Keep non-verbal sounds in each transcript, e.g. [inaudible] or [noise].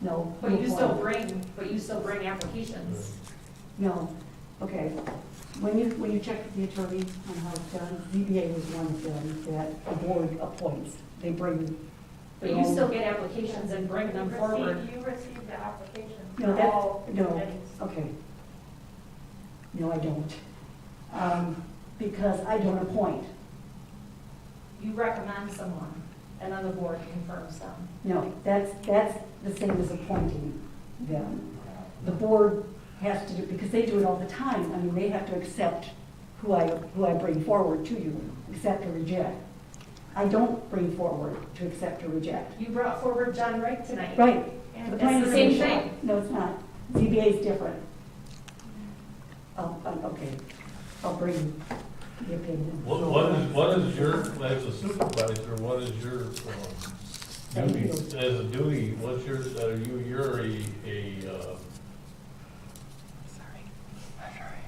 No. But you no still point. bring, but you still bring applications. No, okay. When you, when you check with the attorney on how it's done, ZBA was one of them that the board appoints. They bring. But their you own- still get applications and bring them You forward. receive- You receive the application No, for that- all no. committees. Okay. No, I don't. Um, because I don't appoint. You recommend someone, and then the board confirms them. No, that's, that's the same as appointing them. The board has to do, because they do it all the time, I mean, they have to accept who I, who I bring forward to you, accept or reject. I don't bring forward to accept or reject. You brought forward John Rick tonight. Right. And It's the same thing. No, it's not. ZBA is different. Oh, oh, okay, I'll bring the opinion. What, what is, what is your, as a supervisor, what is your, um, duty, as a duty, what's your, uh, are you, you're a, a, uh,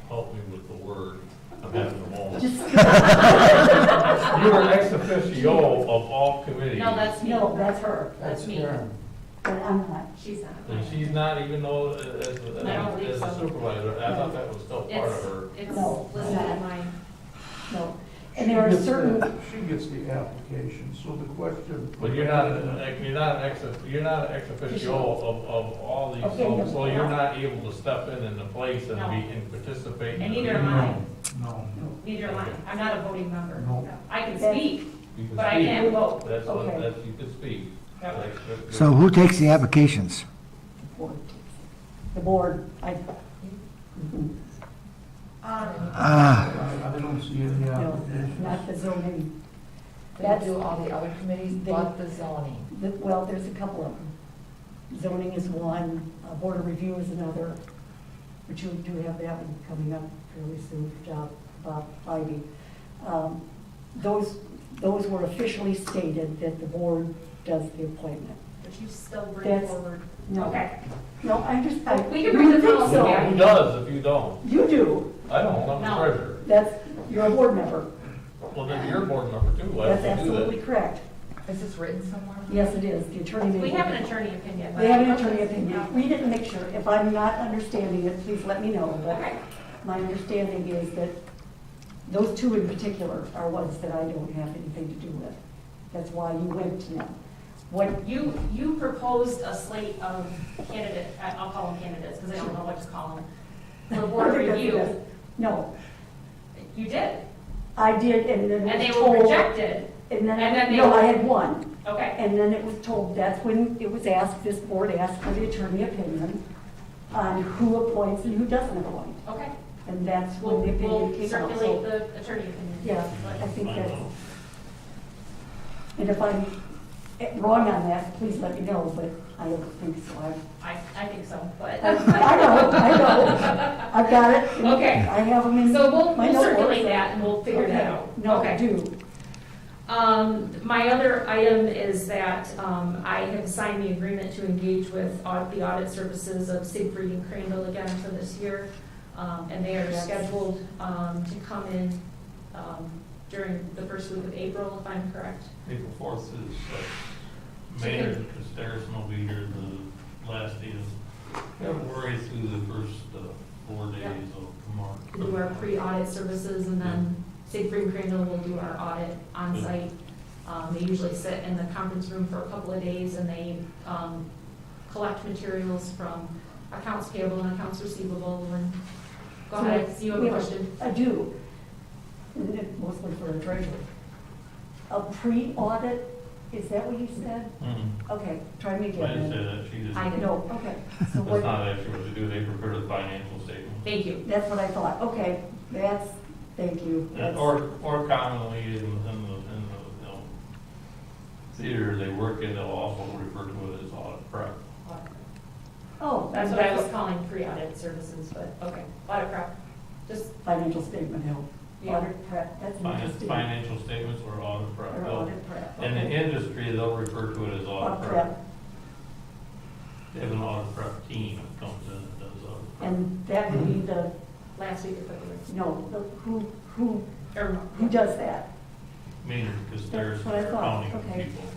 help me with the word, I'm having a moment. Just, [laughs] You're an ex officio of all committees. No, that's me. no, that's her, That's me. but I'm not. She's not. And she's not even though, uh, as, as a- I don't think as a so. supervisor, I thought that was still part of It's, her. it's No, listed not. in mine. No, and there are She gets certain, the- She gets the application, so the question. But you're not, an- you're not an ex, you're not an ex officio of, of all these Okay, no. folks, so you're not able to step in in the place and No. be, and participate. in And the neither meeting. am I. No, no. Neither am I. I'm not a voting member. No. I can That's- speak, You can but I speak. can't vote. That's, what- Okay. that's, you can speak. Like, that's- So who takes the applications? board. The board, I, mhm. Um, Ah, I I don't see any no, application. not the zoning. They do all the other committees They- but the zoning. The- Well, there's a couple of them. Zoning is one, uh, board of review is another, which you do have that one coming up fairly soon for job, Bob Ivy. Um, Those, those were officially stated that the board does the appointment. but you still bring That's- forward. No, Okay. No, I just, I. We can bring the you think policy so. back. Who does if you don't? You do, I don't, I'm No. the treasurer. that's, you're a board member, Well, then you're board member too, why that's don't you do absolutely that? correct. Is this written somewhere? Yes, it is, the attorney may. We have an attorney opinion. but- They have an attorney opinion. We didn't make sure, if I'm not understanding it, please let me know, Okay. but my understanding is that those two in particular are ones that I don't have anything to do with. That's why you went to them. What, You, you proposed a slate of candidate, I- I'll call them candidates because I don't know what to call them, for board review. No, You did, I did, and then and they it was were told. rejected. And and then then, they no, were- I had one. Okay, And then it was told, that's when it was asked, this board asked for the attorney opinion on who appoints and who doesn't appoint. okay. And that's We'll, when the we'll opinion came out. so- circulate the attorney opinion. Yeah, I think I don't that's, know. and if I'm eh, wrong on that, please let me know, but I don't think so. I- I, I think so, but. [laughs] I know, I know, I've got it. and Okay. I have them in my So we'll, notebook. we'll circulate that and we'll figure that Okay. out. No, Okay. do, Um, my other item is that, um, I have signed the agreement to engage with au- the audit services of Siegfried and Crandall again for this year. Um, and they are Yes. scheduled, um, to come in, um, during the first week of April, if I'm correct. April fourth is, uh, Mayor, because Harrison will be here the last day of February through the first, uh, four Yeah. days of March. We do our pre-audit services and then Siegfried and Crandall will do our audit on site. Um, they usually sit in the conference room for a couple of days and they, um, collect materials from accounts payable and accounts receivable and go So ahead, see you have we a have- question. I do, And it- mostly for the treasurer. A pre-audit, is that what you said? Mhm. Okay, try me I didn't again. say then. that, she did. I did. No, okay, so That's what, not actually what they do, they prepare the financial statement. Thank you. that's what I thought, okay, that's, thank you. That's- Or, or commonly in, in the, in the, you know, theater they work in, they'll also refer to it as audit prep. Oh, That's what I was calling pre-audit services, but, okay, audit prep, just, Financial statement help. Yeah. Audit prep, that's an Finan- interesting. Financial statements or audit prep. Or They'll- audit prep. In the okay. industry, they'll refer to it as audit Audit prep. prep, They have an audit prep team that comes in and does audit. prep. and that would be the, last week of February. no, the, who, who, Or- who does that? [laughs] Meaning, because That's there's what I thought, accounting okay. people.